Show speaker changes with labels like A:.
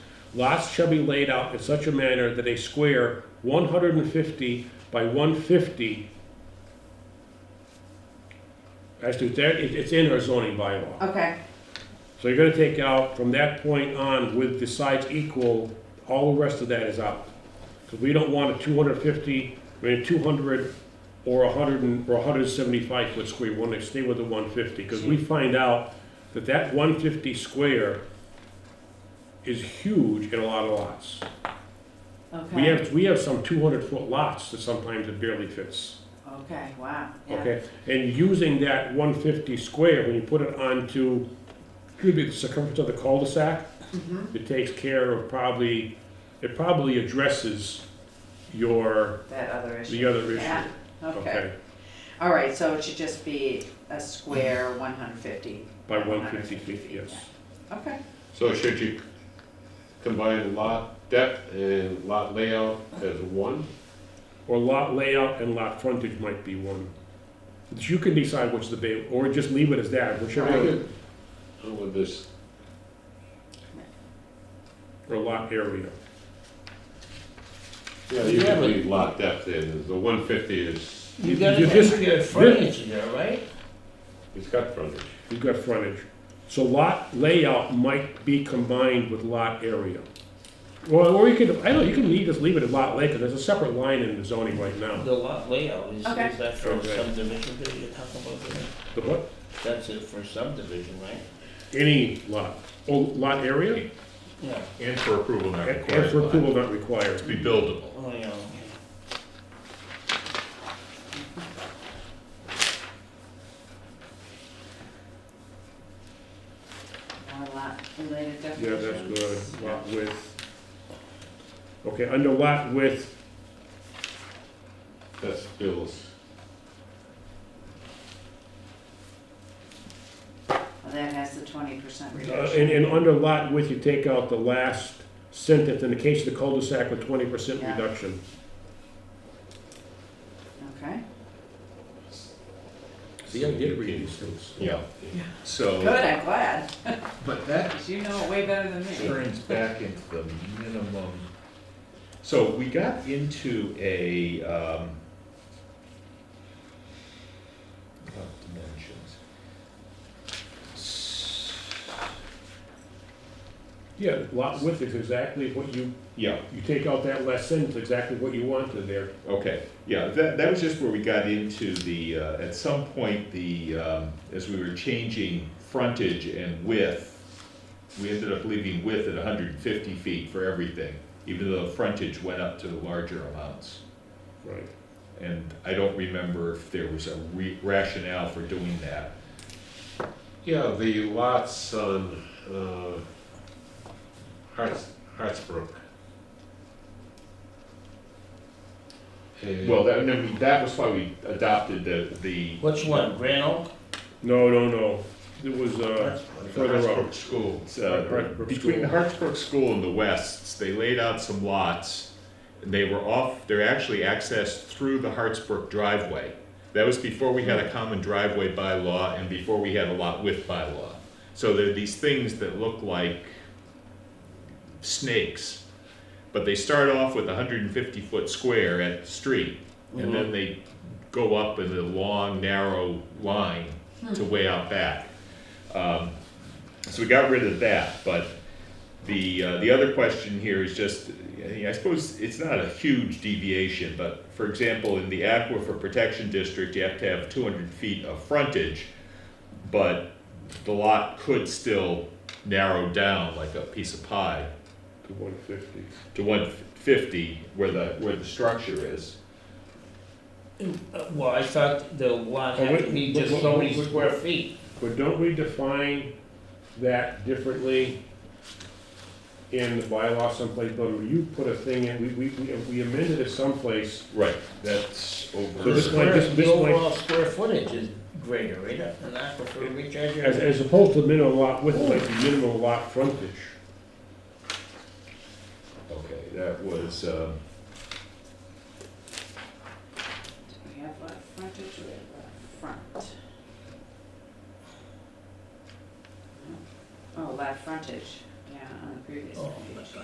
A: Lots shall be laid out in such a manner that a square one hundred and fifty by one fifty. Actually, there, it, it's in our zoning bylaw.
B: Okay,
A: So you're gonna take out, from that point on, with the sides equal, all the rest of that is out. Cause we don't want a two hundred and fifty, I mean, a two hundred or a hundred and, or a hundred and seventy-five foot square, we wanna stay with the one fifty, cause we find out that that one fifty square is huge in a lot of lots. We
B: okay,
A: have, we have some two hundred foot lots that sometimes it barely fits,
B: okay, wow, yeah,
A: okay? And using that one fifty square, when you put it onto, could be the circumference of the cul-de-sac,
B: Mm-hmm.
A: it takes care of probably, it probably addresses your,
B: that other issue.
A: the other
B: Yeah,
A: issue,
B: Okay,
A: okay?
B: all right, so it should just be a square one hundred fifty.
A: By one fifty feet, yes.
B: Okay,
C: So should you combine lot depth and lot layout as one?
A: Or lot layout and lot frontage might be one. But You can decide which the, ba- or just leave it as that, whichever,
C: Or With this,
A: or lot area.
C: yeah,
D: You
C: you
D: have
C: could
D: a-
C: leave lot depth in, the one fifty is,
D: You gotta
A: You just-
D: consider furniture there, right?
C: it's got frontage.
A: You've got frontage. So lot layout might be combined with lot area. Or, or you could, I don't know, you can leave, just leave it at lot lake, 'cause there's a separate line in the zoning right now.
D: The lot layout, is, is
B: Okay.
D: that for
A: Okay.
D: subdivision that you're talking about there?
A: The what?
D: That's it for subdivision, right?
A: Any lot, oh, lot area,
D: Yeah.
E: And for approval not
A: and and for
E: required,
A: approval not required.
E: be buildable.
D: Oh, yeah.
B: more lot related
A: Yeah,
B: definitions.
A: that's good, lot width. Okay, under lot width,
C: That's still,
B: Well, that has the twenty percent
A: uh,
B: reduction.
A: and, and under lot width, you take out the last sentence, in the case of the cul-de-sac with twenty percent
B: Yeah.
A: reduction.
B: Okay,
A: See, I did read these things.
C: yeah.
B: good,
E: So,
B: I'm glad,
E: but that
B: 'cause you know it way better than me.
E: turns back into the minimum. So we got into a, um, about dimensions.
A: Yeah, lot width is exactly what you
E: Yeah,
A: You take out that last sentence, exactly what you wanted there.
E: Okay, yeah, that, that was just where we got into the, uh, at some point, the, um, as we were changing frontage and width, we ended up leaving width at hundred and fifty feet for everything, even though frontage went up to the larger amounts.
A: Right.
E: And I don't remember if there was a re- rationale for doing that.
C: Yeah, the lots on, uh, Harts, Hartsbrook. And-
E: Well, that, no, we- that was why we adopted the, the,
D: Which one, Uh, Grand Oak?
A: No, no, no. It was, uh,
D: That's
C: The
A: further up.
C: Hartsbrook School.
E: uh,
A: Hartsbrook
E: between the
A: School.
E: Hartsbrook School and the Wests, they laid out some lots. And they were off, they're actually accessed through the Hartsbrook driveway. That was before we had a common driveway bylaw and before we had a lot width bylaw. So there are these things that look like snakes. But they start off with a hundred and fifty foot square at the street. And then they go up in a long, narrow line to way out back. Um, so we got rid of that, but the, uh, the other question here is just, I I suppose it's not a huge deviation, but for example, in the aquifer protection district, you have to have two hundred feet of frontage, but the lot could still narrow down like a piece of pie
A: to one fifty.
E: to one fifty where the, where the structure is.
D: Uh, Well, I thought the lot
A: Oh,
D: had
A: wait,
D: to be
A: wait,
D: just
A: wait,
D: so
A: wait,
D: many
A: wait,
D: square
A: wait.
D: feet.
A: But don't we define that differently in the bylaw someplace, but you put a thing in, we, we, we- we amended it someplace.
E: Right, that's over.
A: So
D: The
A: this might-
D: square-
A: this-
D: the
A: this might-
D: overall square footage is greater, right? And that's what we're recharging.
A: As, as opposed to minimum lot width, like the minimum lot frontage.
E: Okay, that was, um,
B: We have lot frontage, we have lot front. Oh, lot frontage, yeah, on the previous
D: Oh.
B: one,